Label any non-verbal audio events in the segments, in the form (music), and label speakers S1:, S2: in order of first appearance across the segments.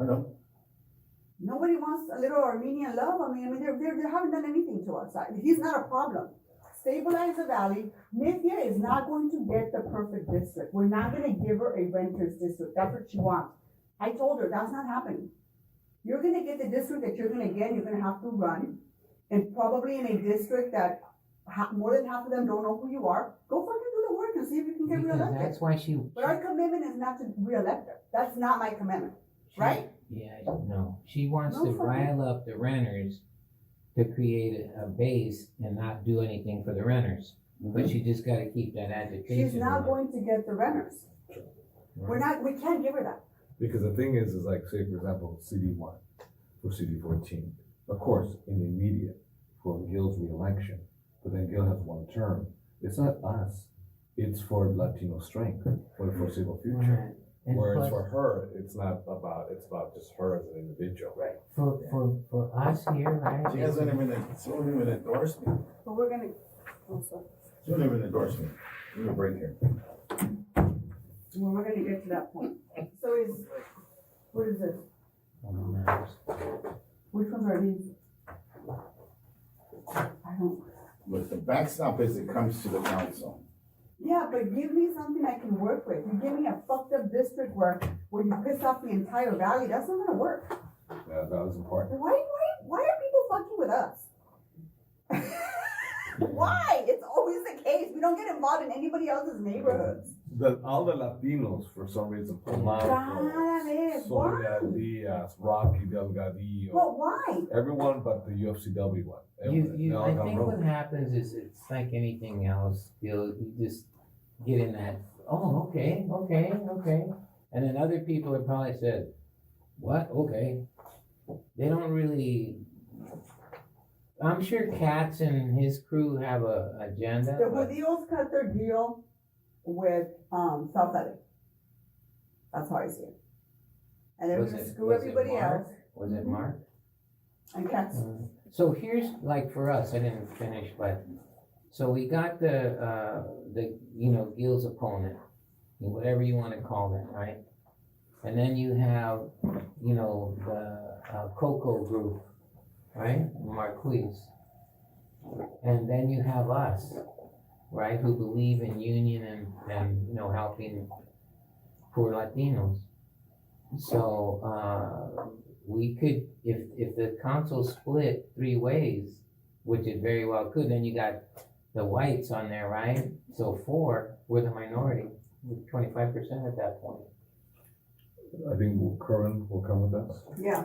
S1: I know.
S2: Nobody wants a little Armenian love. I mean, I mean, they're, they're, they haven't done anything to us. I- He's not a problem. Stabilize the valley. Mithya is not going to get the perfect district. We're not gonna give her a renter's district. That's what she wants. I told her, that's not happening. You're gonna get the district that you're gonna get, and you're gonna have to run. And probably in a district that ha- more than half of them don't know who you are. Go fucking do the work and see if you can get
S3: Because
S2: reelected.
S3: that's why she.
S2: But our commitment is not to reelect her. That's not my commitment.
S3: she-
S2: right?
S3: Yeah, no, she wants
S2: No
S3: to
S2: fucking-
S3: rile up the renters to create a, a base and not do anything for the renters. But you just gotta keep that agitation.
S2: Mm-hmm. She's not
S3: going.
S2: going to get the renters. We're not, we can't give her that.
S1: Because the thing is, is like, say for example, CD one or CD fourteen, of course, in the immediate for Gil's reelection, but then Gil has one term. It's not us. It's for Latino strength for the foreseeable future.
S3: Right. And
S1: Whereas
S3: plus,
S1: for her, it's not about, it's about just her as an individual. Right.
S3: for, for, for us here, right?
S4: She hasn't even, she hasn't even endorsed me.
S2: But we're gonna, oh, sorry.
S4: She hasn't even endorsed me. Give me a break here.
S2: Well, we're gonna get to that point. So is, what is this?
S3: Oh,
S2: Which ones are these? I don't,
S4: But the backstop is it comes to the council.
S2: yeah, but give me something I can work with. You give me a fucked up district where, where you piss off the entire valley, that's not gonna work.
S1: Yeah, that was important.
S2: Why, why, why are people fucking with us? (laughs) Why? It's always the case. We don't get involved in anybody else's neighborhoods.
S1: The, all the Latinos, for some reason,
S2: Cada
S1: Polanco,
S2: vez,
S1: Soria
S2: why?
S1: Diaz, Rocky Delgadillo.
S2: Well, why?
S1: Everyone but the UFCW one.
S3: You,
S1: Everyone- they
S3: you,
S1: all
S3: I
S1: got
S3: think
S1: rolled.
S3: what happens is it's like anything else, you'll, you just get in that, oh, okay, okay, okay. And then other people have probably said, what, okay. They don't really, I'm sure Katz and his crew have a agenda,
S2: The
S3: but
S2: Judíos cut their deal with, um, South LA. That's how I see it. And they're
S3: Was
S2: gonna
S3: it-
S2: screw
S3: was it
S2: everybody
S3: Mark?
S2: else
S3: was it Mark?
S2: and cats.
S3: So here's, like for us, I didn't finish, but, so we got the, uh, the, you know, Gil's opponent, whatever you wanna call that, right? And then you have, you know, the uh, Coco group, right, Marquise. And then you have us, right, who believe in union and, and, you know, helping poor Latinos. So, uh, we could, if, if the council split three ways, which it very well could, then you got the whites on there, right? So four, were the minority, twenty-five percent at that point.
S1: I think Curran will come with us.
S2: Yeah,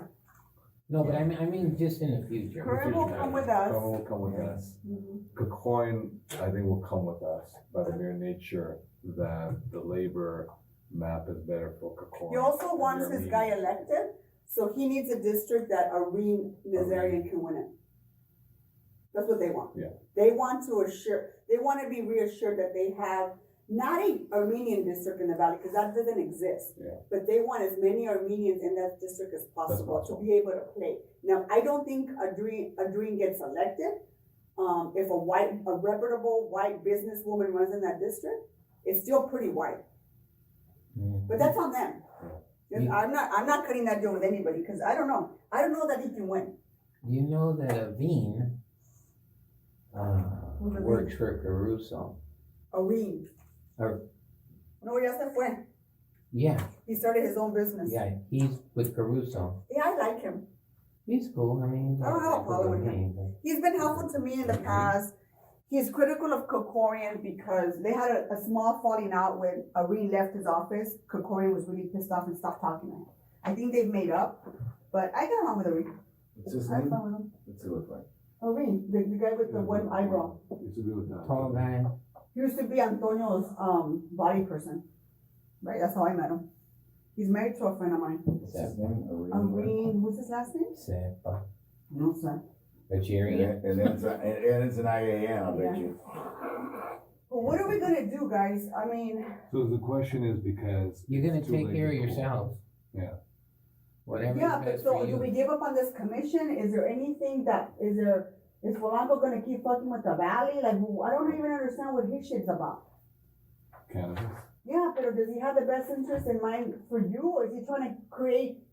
S3: No, but I mean, I mean, just in the future.
S2: Curran will come with
S1: Curran
S2: us.
S1: will come with us.
S2: Mhm.
S1: Kakoin, I think, will come with us by the mere nature that the labor map is better for Kakoin.
S2: He also wants this guy elected, so he needs a district that Irene Nazarian can win in. That's what they want.
S1: Yeah.
S2: They want to assure, they want to be reassured that they have not a Armenian district in the valley, because that doesn't exist.
S1: Yeah.
S2: But they want as many Armenians in that district as possible to be able to play. Now, I don't think Adrien, Adrien gets elected. Um, if a white, a reputable white businesswoman runs in that district, it's still pretty white.
S3: Mm.
S2: But that's on them. And I'm not, I'm not cutting that deal with anybody, because I don't know, I don't know that he can win.
S3: You know that Aveen, uh,
S2: Who's Aveen?
S3: works for Caruso.
S2: Areen.
S3: Ar-
S2: No, ya se fue.
S3: Yeah,
S2: He started his own business.
S3: yeah, he's with Caruso.
S2: Yeah, I like him.
S3: He's cool, I mean.
S2: I don't have a problem with
S3: him.
S2: He's been helpful to me in the past. He's critical of Kokorian because they had a, a small falling out when Areen left his office. Kokorian was really pissed off and stopped talking to him. I think they've made up, but I get along with Areen.
S4: What's his
S2: I have
S4: name?
S2: fun with him.
S4: What's it look like?
S2: Areen, the, the guy with the one eyebrow.
S1: It's a good time.
S3: Tall guy,
S2: He used to be Antonio's um, body person, right? That's how I met him. He's married to a friend of mine.
S4: What's his name? Irene?
S2: Irene, what's his last name?
S3: Sepa,
S2: No, sir.
S4: And
S3: Algerian.
S4: it- and it's, a- and and it's an IAN, I bet you.
S2: But what are we gonna do, guys? I mean,
S1: So the question is because.
S3: You're gonna
S1: it's too
S3: take
S1: late
S3: care of
S1: to call.
S3: yourself.
S1: Yeah.
S3: Whatever's
S2: yeah, but
S3: best
S2: so
S3: for
S2: do we
S3: you.
S2: give up on this commission? Is there anything that, is there, is Polanco gonna keep fucking with the valley? Like, wh- I don't even understand what his shit's about.
S1: Cannabis.
S2: Yeah, but does he have the best interest in mind for you, or is he trying to create